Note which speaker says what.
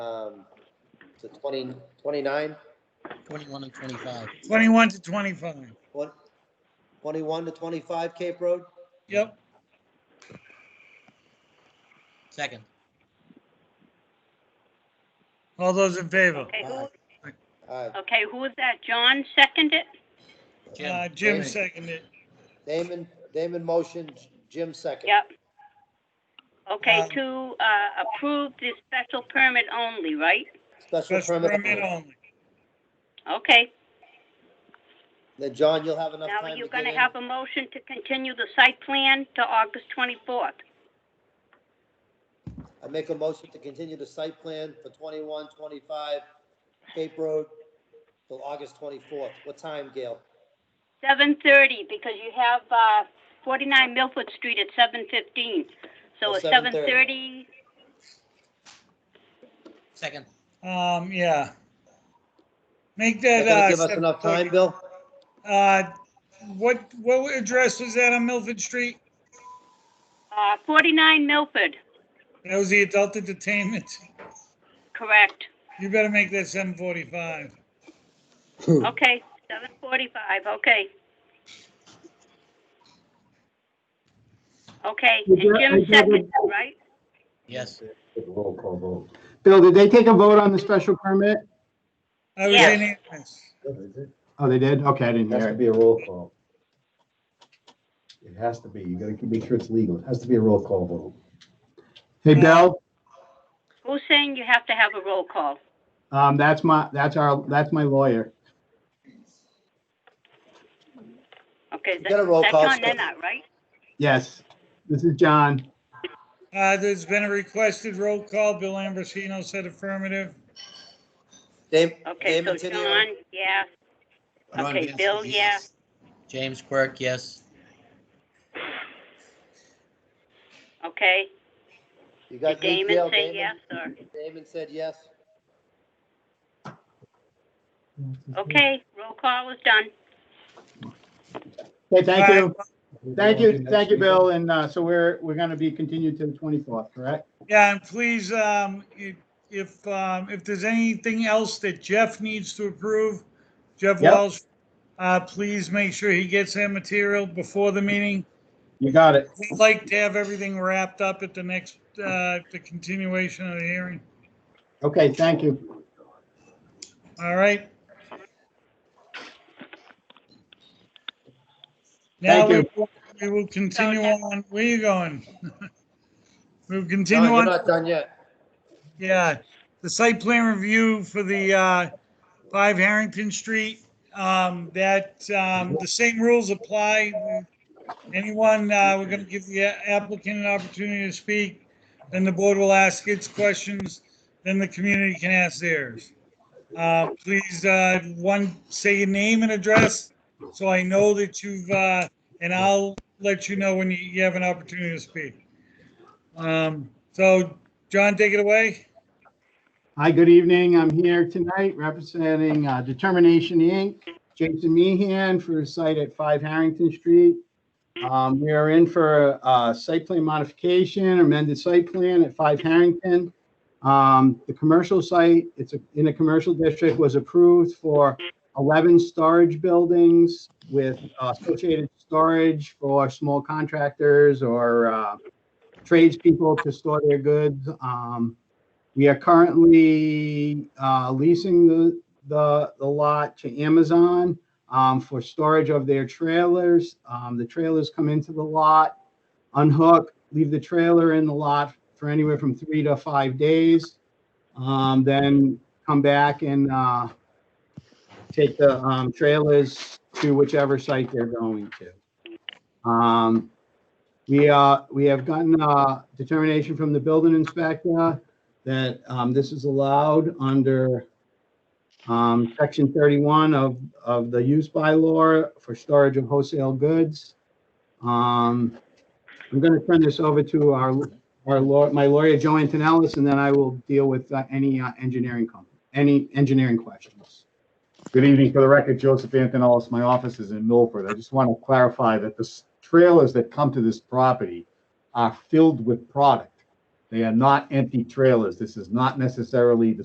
Speaker 1: Um, to 20, 29,
Speaker 2: 21 and 25.
Speaker 3: 21 to 25.
Speaker 1: one- 21 to 25 Cape Road?
Speaker 3: Yep.
Speaker 2: Second.
Speaker 3: All those in favor?
Speaker 4: Okay, who,
Speaker 1: All right,
Speaker 4: okay, who was that? John seconded?
Speaker 3: Uh, Jim
Speaker 2: Aye.
Speaker 3: seconded.
Speaker 1: Damon, Damon motion, Jim second.
Speaker 4: Yep. Okay,
Speaker 3: Um,
Speaker 4: to, uh, approve this special permit only, right?
Speaker 1: Special
Speaker 3: Special
Speaker 1: permit.
Speaker 3: permit
Speaker 1: only.
Speaker 3: only.
Speaker 4: Okay,
Speaker 1: Then, John, you'll have enough
Speaker 4: now
Speaker 1: time
Speaker 4: you're
Speaker 1: to
Speaker 4: gonna
Speaker 1: get in.
Speaker 4: have a motion to continue the site plan to August twenty-fourth.
Speaker 1: I make a motion to continue the site plan for 21, 25 Cape Road till August 24th. What time, Gail?
Speaker 4: Seven thirty, because you have, uh, forty-nine Milford Street at seven fifteen. So
Speaker 1: Well,
Speaker 4: at seven
Speaker 1: 7:30.
Speaker 4: thirty,
Speaker 2: Second.
Speaker 3: Um, yeah. Make
Speaker 1: They're
Speaker 3: that,
Speaker 1: gonna
Speaker 3: uh.
Speaker 1: give us enough time, Bill?
Speaker 3: Uh, what, what address was that on Milford Street?
Speaker 4: uh, forty-nine Milford,
Speaker 3: That was the adult entertainment.
Speaker 4: correct?
Speaker 3: You better make that 745.
Speaker 4: Okay, seven forty-five, okay. Okay, and Jim seconded, right?
Speaker 2: Yes.
Speaker 5: Roll call vote.
Speaker 6: Bill, did they take a vote on the special permit?
Speaker 3: I was
Speaker 4: Yes.
Speaker 3: unanimous.
Speaker 5: It
Speaker 6: Oh, they did? Okay, I didn't
Speaker 5: has to
Speaker 6: hear it.
Speaker 5: be a roll call. It has to be. You gotta keep- make sure it's legal. It has to be a roll call vote.
Speaker 6: Hey, Bill,
Speaker 4: Who's saying you have to have a roll call?
Speaker 6: um, that's my, that's our, that's my lawyer.
Speaker 4: Okay,
Speaker 1: got a
Speaker 4: that-
Speaker 1: roll
Speaker 4: that's
Speaker 1: call,
Speaker 4: on
Speaker 1: Scott.
Speaker 4: Nena, right?
Speaker 6: Yes, this is John.
Speaker 3: Uh, there's been a requested roll call. Bill Ambrosino said affirmative.
Speaker 1: Dam-
Speaker 4: Okay, so
Speaker 1: Damon Tenino?
Speaker 4: John, yeah,
Speaker 2: Ron
Speaker 4: Okay,
Speaker 2: Vincent,
Speaker 4: Bill,
Speaker 2: yes. James Quirk, yes.
Speaker 4: okay.
Speaker 1: You
Speaker 4: Did
Speaker 1: got me, Gail?
Speaker 4: Damon say yes or?
Speaker 1: Damon said yes.
Speaker 4: Okay, roll call is done.
Speaker 6: Hey, thank you. Thank you,
Speaker 5: Next
Speaker 6: thank you,
Speaker 5: meeting.
Speaker 6: Bill. And, uh, so we're, we're gonna be continued to the twenty-fourth, correct?
Speaker 3: Yeah, and please, um, if- if, um, if there's anything else that Jeff needs to approve, Jeff
Speaker 6: Yep.
Speaker 3: Welsh, uh, please make sure he gets that material before the meeting.
Speaker 6: You got it.
Speaker 3: We'd like to have everything wrapped up at the next, uh, the continuation of the hearing.
Speaker 6: Okay, thank you.
Speaker 3: All right. Now
Speaker 6: Thank
Speaker 3: we we will continue on. Where you going? We'll continue
Speaker 1: John, you're
Speaker 3: on,
Speaker 1: not done yet.
Speaker 3: yeah. The site plan review for the uh, 5 Harrington Street. um, That, um, the same rules apply. Anyone, uh, we're going to give the applicant an opportunity to speak, then the board will ask its questions, then the community can ask theirs. Uh, Please, uh, one, say your name and address, so I know that you've, uh, and I'll let you know when you- you have an opportunity to speak. Um, So, John, take it away.
Speaker 6: Hi, good evening. I'm here tonight representing, uh, Determination Inc., Jason Meehan for a site at Five Harrington Street. Um, we are in for a site plan modification, amended site plan at Five Harrington. Um, the commercial site, it's a- in a commercial district, was approved for eleven storage buildings with uh, associated storage for small contractors or, uh, tradespeople to store their goods. Um, we are currently, uh, leasing the, the, the lot to Amazon um, for storage of their trailers. Um, the trailers come into the lot, unhook, leave the trailer in the lot for anywhere from three to five days. Um, then come back and, uh, take the, um, trailers to whichever site they're going to. Um, we, uh, we have gotten, uh, determination from the building inspector that, um, this is allowed under, um, section thirty-one of of the use by law for storage of wholesale goods. Um, I'm going to turn this over to our, our law, my lawyer, Joe Antonellis, and then I will deal with uh, any uh, engineering, com- any engineering questions.
Speaker 7: Good evening. For the record, Joseph Antonellis, my office is in Milford. I just want to clarify that the s- trailers that come to this property are filled with product. They are not empty trailers. This is not necessarily the